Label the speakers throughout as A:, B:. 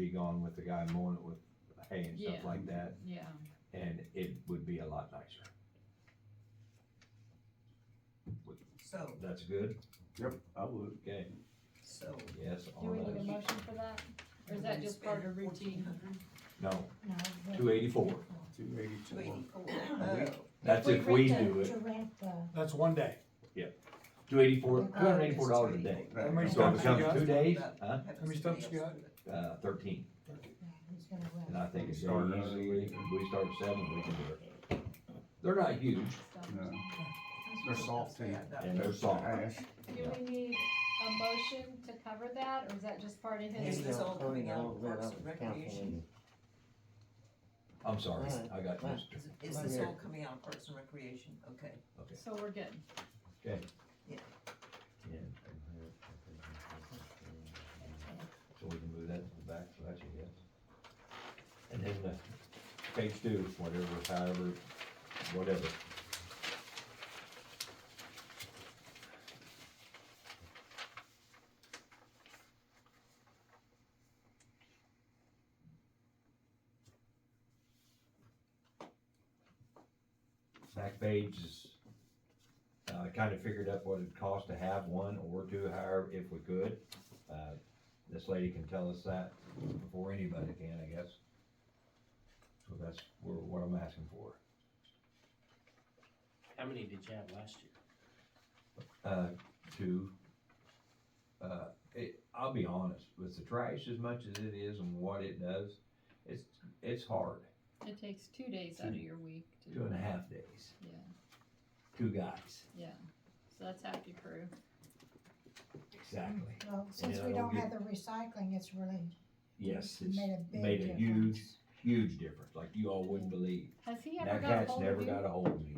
A: be gone with the guy mowing it with hay and stuff
B: Yeah.
A: like that,
B: yeah,
A: and it would be a lot nicer.
C: So,
A: That's good,
D: Yep, I would.
A: okay,
C: so.
A: yes,
B: do we
A: on
B: need a
A: those,
B: motion for that, or is that just part of routine?
A: no,
E: No. but-
A: two eighty-four,
D: Two
C: Two
D: eighty-four.
C: eighty-four,
D: week.
C: oh,
A: that's if we
E: rent the-
A: do it,
E: To rent the,
F: That's one day.
A: two
B: Uh,
A: eighty-four, two
E: Oh,
A: hundred eighty-four
C: just
A: dollars a day.
D: Right.
F: How
A: So
F: many
A: if
F: stumps
A: it
F: you
A: comes
F: got?
A: two days, huh,
C: have
F: How many
C: somebody
F: stumps you
C: else
F: got?
C: do it.
A: uh, thirteen,
E: yeah, who's gonna rent?
A: and I think it's
D: Start
A: very
D: early.
A: easily, if we start at seven, we can do it. They're not huge,
D: No, They're soft too.
C: Yeah, that-
A: and they're soft,
D: Ash,
B: Do we need a motion to cover that, or is that just part of his?
C: Is this all coming out of Parks and Recreation?
A: I'm sorry, I got this,
C: Is, is this all coming out of Parks and Recreation? Okay.
A: okay.
B: So we're good,
A: So we can move that to the back, so that's a yes. And then the page two, whatever, however, whatever. Back page is, uh, kinda figured up what it'd cost to have one or two, however, if we could. Uh, this lady can tell us that before anybody can, I guess. So that's where, what I'm asking for.
G: How many did you have last year?
A: Uh, to, uh, it, I'll be honest, with the trash as much as it is and what it does, it's, it's hard.
B: it takes two days out of your week to.
A: Two and a half days,
B: Yeah,
A: two guys,
B: yeah, so that's half your crew,
A: exactly.
E: Well, since
A: Yeah,
E: we
A: that'll
E: don't have the recycling, it's really
A: Yes, it's
E: made a big difference.
A: made a huge, huge difference, like you all wouldn't believe.
B: has he
A: And
B: ever
A: That
B: got
A: cat's
B: hold
A: never
B: of you?
A: got a hold of me.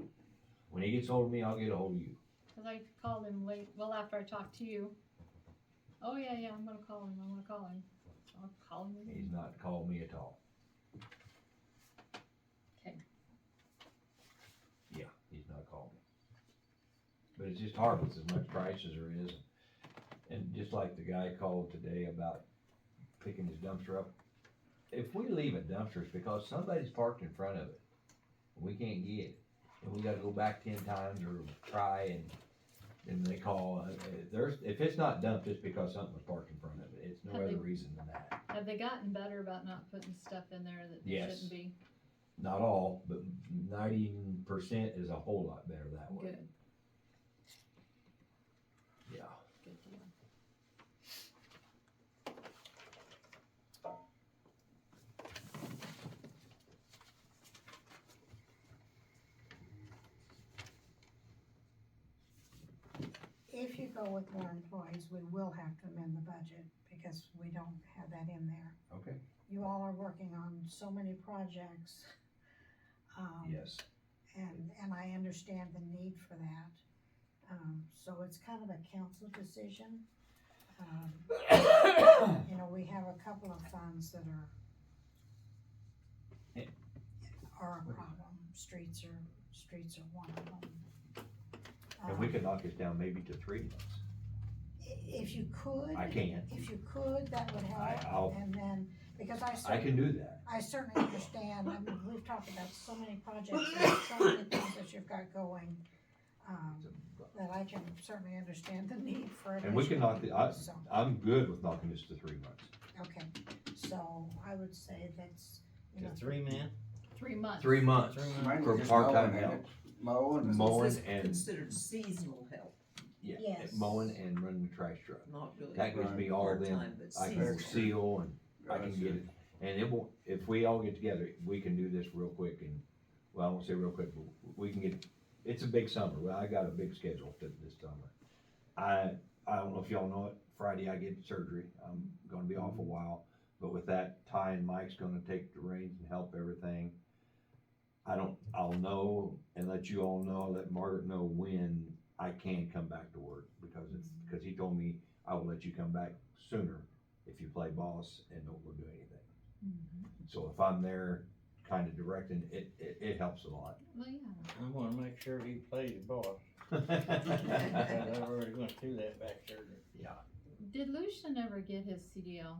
A: When he gets hold of me, I'll get a hold of you.
B: Cause I called him late, well, after I talked to you. Oh, yeah, yeah, I'm gonna call him, I'm gonna call him. I'll call him. again.
A: He's not called me at all.
B: Okay.
A: Yeah, he's not called me. But it's just hard with as much price as there is. And just like the guy called today about picking his dumpster up, if we leave a dumpster, it's because somebody's parked in front of it. We can't get it. And we gotta go back ten times or try and then they call. Uh, If there's, if it's not dumped, it's because something was parked in front of it. It's no
B: Have they-
A: other reason than that.
B: Have they gotten better about not putting stuff in there that they
A: Yes.
B: shouldn't be?
A: not all, but ninety percent is a whole lot better that way.
B: Good,
A: Yeah.
B: good deal.
E: If you go with more employees, we will have to amend the budget because we don't have that in there.
A: Okay.
E: You all are working on so many projects. um,
A: Yes.
E: And, and I understand the need for that. Um, so it's kind of a council decision. Um, You know, we have a couple of funds that are
A: Eh.
E: are a problem. Streets are, streets are one of them.
A: And we
E: Um,
A: could knock this down maybe to three months.
E: i- If you could.
A: I can.
E: If you could, that would
A: I,
E: help.
A: I'll,
E: And then, because I
A: I
E: certainly,
A: can do that.
E: I certainly understand, I mean, we've talked about so many projects, and so many things that you've got going. Um, that I can certainly understand the need for.
A: And we can
E: additional
A: knock the, I,
E: people, so,
A: I'm good with knocking this to three months.
E: Okay, so I would say that's, you know,
G: three man?
B: Uh, Three months.
A: Three months
G: Three months.
D: Mine
A: for
D: was just
A: part-time
D: mowing, ain't
A: help.
D: it? Mowing. and-
A: Mowing
C: Is this
A: and-
C: Considered seasonal help,
A: Yeah.
E: Yes.
A: Mowing and running the trash truck.
C: not really.
A: That gives me all them.
C: part-time, but
A: I can
C: seasonal.
A: seal and I can get it. And it won't, if we all get together, we can do this real quick and, well, I won't say real quick, but we can get, it's a big summer, well, I got a big schedule th- this summer. I, I don't know if y'all know it, Friday I get surgery, I'm gonna be off a while, but with that, Ty and Mike's gonna take the reins and help everything. I don't, I'll know and let you all know, let Margaret know when I can come back to work, because it's, because he told me I will let you come back sooner if you play boss and don't go do anything.
B: Mm-hmm.
A: So if I'm there kind of directing, it, it, it helps a lot.
B: Well, yeah,
G: I wanna make sure he plays ball,
A: Yeah,
G: I've already went through that back there.
B: did Lucian ever get his CDL?